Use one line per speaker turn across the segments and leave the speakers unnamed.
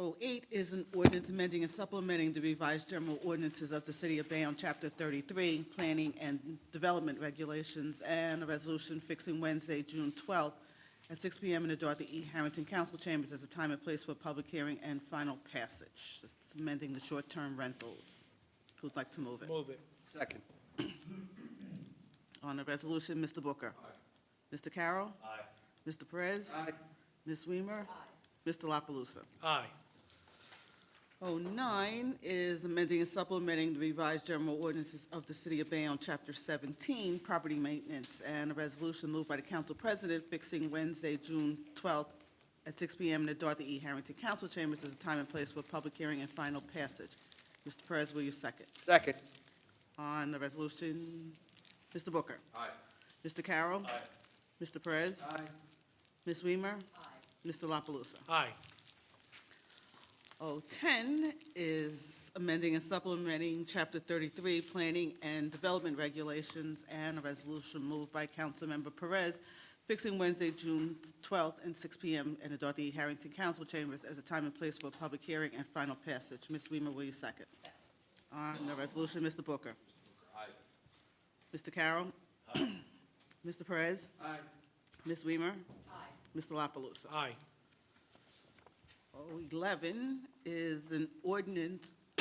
08 is an ordinance amending and supplementing the revised general ordinances of the City of Bayonne, Chapter 33, Planning and Development Regulations, and a resolution fixing Wednesday, June 12th, at 6 PM in the Dorothy E. Harrington Council Chambers as a time and place for public hearing and final passage. This is Amending the short-term rentals. Who'd like to move it?
Move it.
Second.
On the resolution, Mr. Booker. Mr. Carroll.
Aye.
Mr. Perez.
Aye.
Ms. Weimer. Mr. La Palusa.
Aye.
09 is amending and supplementing the revised general ordinances of the City of Bayonne, Chapter 17, Property Maintenance, and a resolution moved by the council president fixing Wednesday, June 12th, at 6 PM in the Dorothy E. Harrington Council Chambers as a time and place for public hearing and final passage. Mr. Perez, will you second?
Second.
On the resolution, Mr. Booker.
Aye.
Mr. Carroll.
Aye.
Mr. Perez.
Aye.
Ms. Weimer. Mr. La Palusa.
Aye.
010 is amending and supplementing Chapter 33, Planning and Development Regulations, and a resolution moved by Councilmember Perez fixing Wednesday, June 12th, and 6 PM in the Dorothy E. Harrington Council Chambers as a time and place for a public hearing and final passage. Ms. Weimer, will you second? On the resolution, Mr. Booker. Aye. Mr. Carroll. Aye. Mr. Perez.
Aye.
Ms. Weimer. Aye. Mr. La Palusa.
Aye.
011 is an ordinance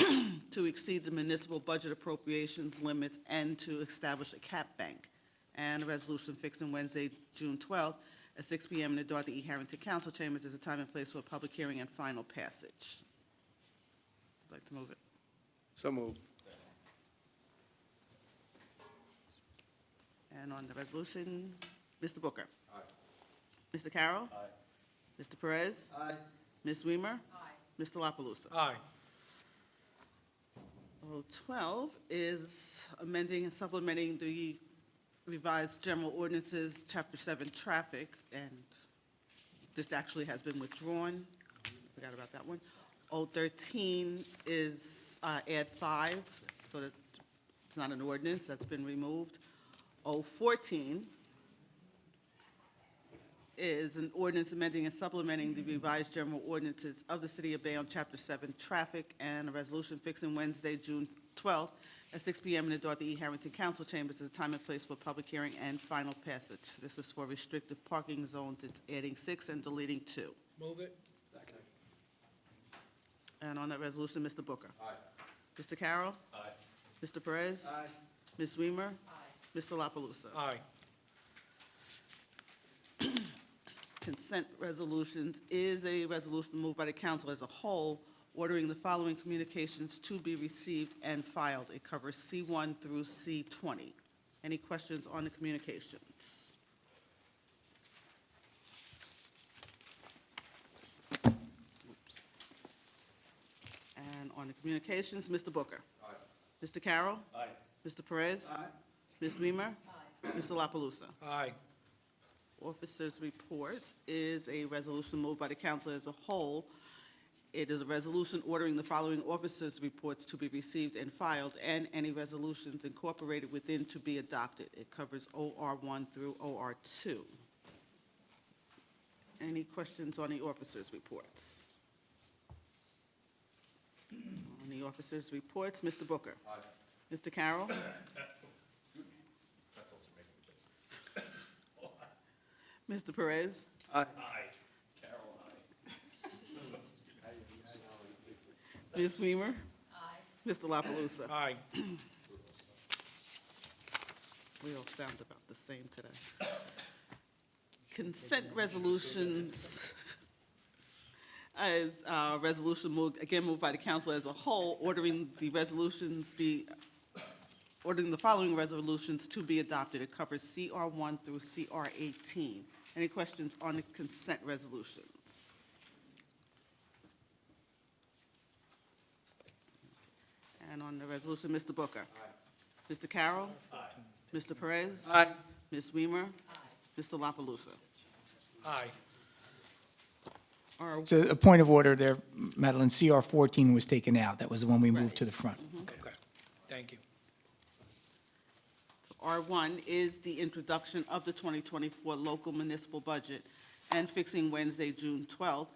to exceed the municipal budget appropriations limits and to establish a cap bank, and a resolution fixed on Wednesday, June 12th, at 6 PM in the Dorothy E. Harrington Council Chambers as a time and place for a public hearing and final passage. I'd like to move it.
So moved.
And on the resolution, Mr. Booker. Aye. Mr. Carroll. Aye. Mr. Perez.
Aye.
Ms. Weimer. Aye. Mr. La Palusa.
Aye.
012 is amending and supplementing the revised general ordinances, Chapter 7, Traffic, and this actually has been withdrawn. Forgot about that one. 013 is uh, add 5, so that it's not an ordinance, that's been removed. 014 is an ordinance amending and supplementing the revised general ordinances of the City of Bayonne, Chapter 7, Traffic, and a resolution fixing Wednesday, June 12th, at 6 PM in the Dorothy E. Harrington Council Chambers as a time and place for public hearing and final passage. This is for restrictive parking zones. It's adding six and deleting two.
Move it.
And on that resolution, Mr. Booker. Aye. Mr. Carroll. Aye. Mr. Perez.
Aye.
Ms. Weimer. Aye. Mr. La Palusa.
Aye.
consent resolutions is a resolution moved by the council as a whole, ordering the following communications to be received and filed. It covers C1 through C20. Any questions on the communications? And on the communications, Mr. Booker. Aye. Mr. Carroll.
Aye.
Mr. Perez.
Aye.
Ms. Weimer. Aye. Mr. La Palusa.
Aye.
Officers' report is a resolution moved by the council as a whole. It is a resolution ordering the following officers' reports to be received and filed, and any resolutions incorporated within to be adopted. It covers OR one through OR two. Any questions on the officers' reports? On the officers' reports, Mr. Booker. Aye. Mr. Carroll. Mr. Perez.
Aye.
Ms. Weimer. Aye. Mr. La Palusa.
Aye.
We all sound about the same today. Consent resolutions as uh resolution moved, again moved by the council as a whole, ordering the resolutions be, ordering the following resolutions to be adopted. It covers CR one through CR eighteen. Any questions on the consent resolutions? And on the resolution, Mr. Booker. Aye. Mr. Carroll. Mr. Perez?
Aye.
Ms. Weimer? Mr. La Palusa?
Aye.
Or-
So a point of order there, Madeline, CR 14 was taken out. That was the one we moved to the front.
Okay. Thank you.
R1 is the introduction of the 2024 local municipal budget and fixing Wednesday, June 12th